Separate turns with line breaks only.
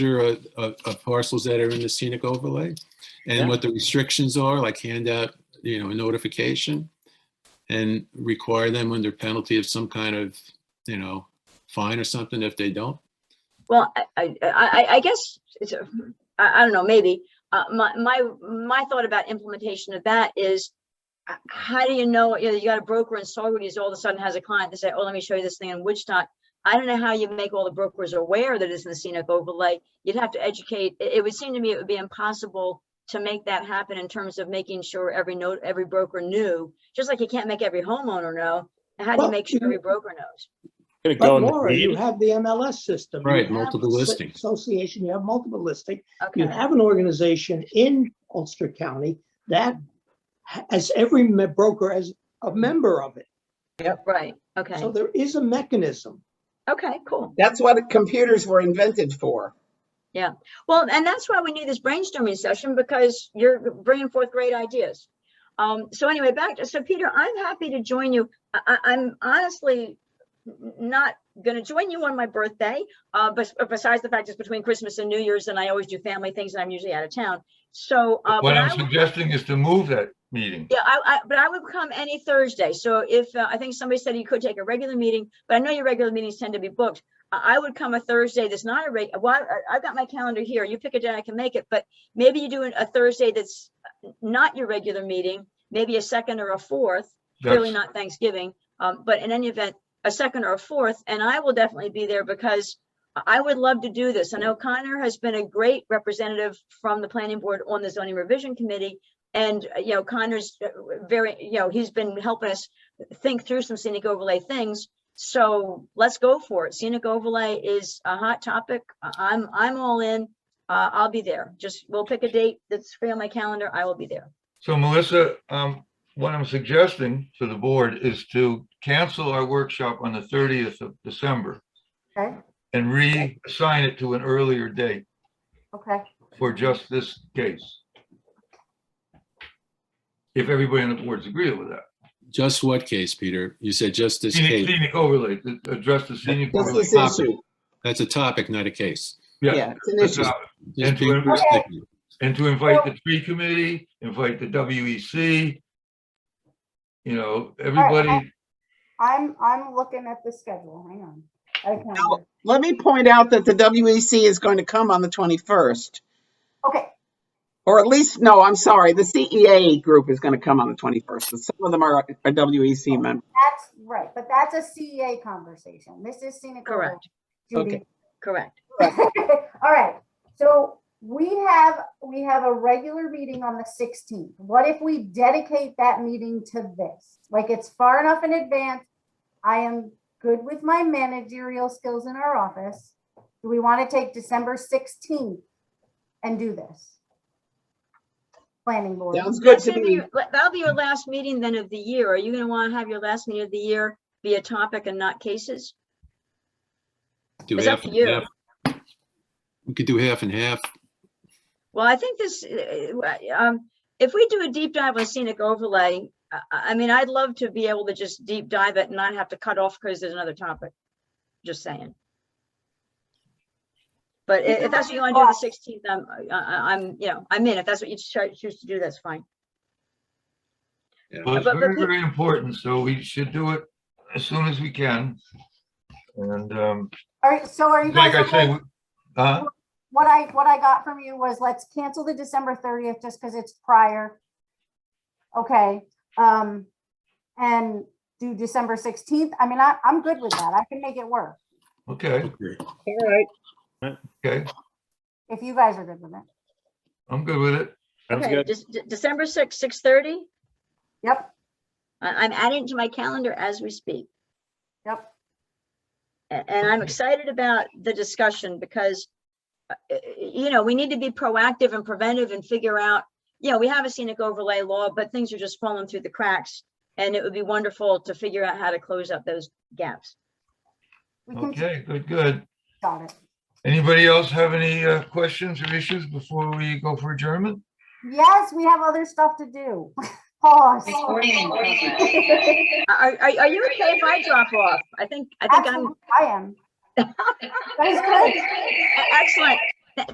of, of uh, parcels that are in the scenic overlay
Yeah.
and what the restrictions are, like hand out, you know, a notification and require them under penalty of some kind of, you know, fine or something if they don't.
Well, I, I, I, I guess, it's, a- I, I don't know, maybe, uh, my, my, my thought about implementation of that is, h- how do you know, you know, you got a broker in Saugerties, all of a sudden has a client to say, oh, let me show you this thing in Woodstock. I don't know how you make all the brokers aware that it's in the scenic overlay. You'd have to educate, it, it would seem to me it would be impossible to make that happen in terms of making sure every note, every broker knew, just like you can't make every homeowner know. How do you
Well,
make sure
you-
every broker knows?
Gonna go
But
in the
Laura, you
deed.
have the MLS system. you
Right,
have
multiple
a s-
listing.
Association, you have multiple listing. You
Okay,
have an organization in Ulster County that has every me- broker as a member of it.
right, okay,
So there is a mechanism.
okay, cool.
That's what computers were invented for.
Well, and that's why we need this brainstorming session because you're bringing forth great ideas. Um, so anyway, back to, so Peter, I'm happy to join you. I, I, I'm honestly n- not gonna join you on my birthday, uh, bes- besides the fact it's between Christmas and New Year's and I always do family things and I'm usually out of town. So, uh,
What
but I
I'm
would-
suggesting is to move that meeting.
yeah, I, I, but I would come any Thursday. So if, uh, I think somebody said you could take a regular meeting, but I know your regular meetings tend to be booked. I, I would come a Thursday that's not a reg, well, I, I've got my calendar here. You pick a day I can make it, but maybe you do an- a Thursday that's not your regular meeting, maybe a second or a fourth, clearly
That's-
not Thanksgiving. Um, but in any event, a second or a fourth, and I will definitely be there because I- I would love to do this. I know Connor has been a great representative from the planning board on the zoning revision committee. And, uh, you know, Connor's uh, very, you know, he's been helping us think through some scenic overlay things. So let's go for it. Scenic overlay is a hot topic. I- I'm, I'm all in. Uh, I'll be there. Just, we'll pick a date that's free on my calendar. I will be there.
So Melissa, um, what I'm suggesting to the board is to cancel our workshop on the thirtieth of December
Okay,
and reassign it to an earlier date
okay.
for just this case. If everybody on the board's agreeable with that.
Just what case, Peter? You said just this
Scenic
case.
scenic overlay, to address the scenic
This
overlay.
is issue.
That's a topic, not a case.
Yeah, it's an
that's
issue.
all.
Just
And
people
to-
are sticking.
And to invite the tree committee, invite the WEC, you know, everybody.
I'm, I'm looking at the schedule, hang on. I can-
No. Let me point out that the WEC is going to come on the 21st,
Okay,
or at least, no, I'm sorry, the CEA group is going to come on the 21st. but Some of them are are WEC members.
that's right, but that's a CEA conversation. This is scenic. overlay,
Correct.
Judy.
Correct.
All right, so we have, we have a regular meeting on the sixteenth. What if we dedicate that meeting to this? Like, it's far enough in advance. I am good with my managerial skills in our office. Do we want to take December sixteenth and do this? Planning board.
Sounds good
That's
to
gonna be
me.
your- le- That'll be your last meeting then of the year. Are you gonna wanna have your last meeting of the year be a topic and not cases?
Do
It's up
half
to
and
you.
half. We could do half and half.
Well, I think this, uh, uh, um, if we do a deep dive on scenic overlay, I, I I mean, I'd love to be able to just deep dive it and not have to cut off because there's another topic. Just saying. But i-
Either
if that's
way,
what you wanna do on the
lost.
sixteenth, I'm, I- I- I'm, you know, I'm in. If that's what you cho- choose to do, that's fine.
Well, it's
But- but
very,
pe-
very important, so we should do it as soon as we can. And, um,
All right, so are you guys
like I
okay?
say, we- uh,
What I, what I got from you was let's cancel the December thirtieth just because it's prior. Okay, um, and do December sixteenth. I mean, I, I'm good with that. I can make it work
okay,
Okay.
All right.
okay,
if you guys are good with it.
I'm good with it.
Sounds
Okay,
good.
Dec- De- December sixth, six thirty?
Yep,
I, I'm adding it to my calendar as we speak.
yep.
A- And I'm excited about the discussion because, uh, uh, you know, we need to be proactive and preventive and figure out, you know, we have a scenic overlay law, but things are just falling through the cracks. And it would be wonderful to figure out how to close up those gaps.
We can
Okay, good, good.
solve it.
Anybody else have any, uh, questions or issues before we go for adjournment?
Yes, we have other stuff to do. Pause.
Are, are, are you okay if I drop off? I think, I think I'm
Absolutely, I am. That is good.
e- excellent.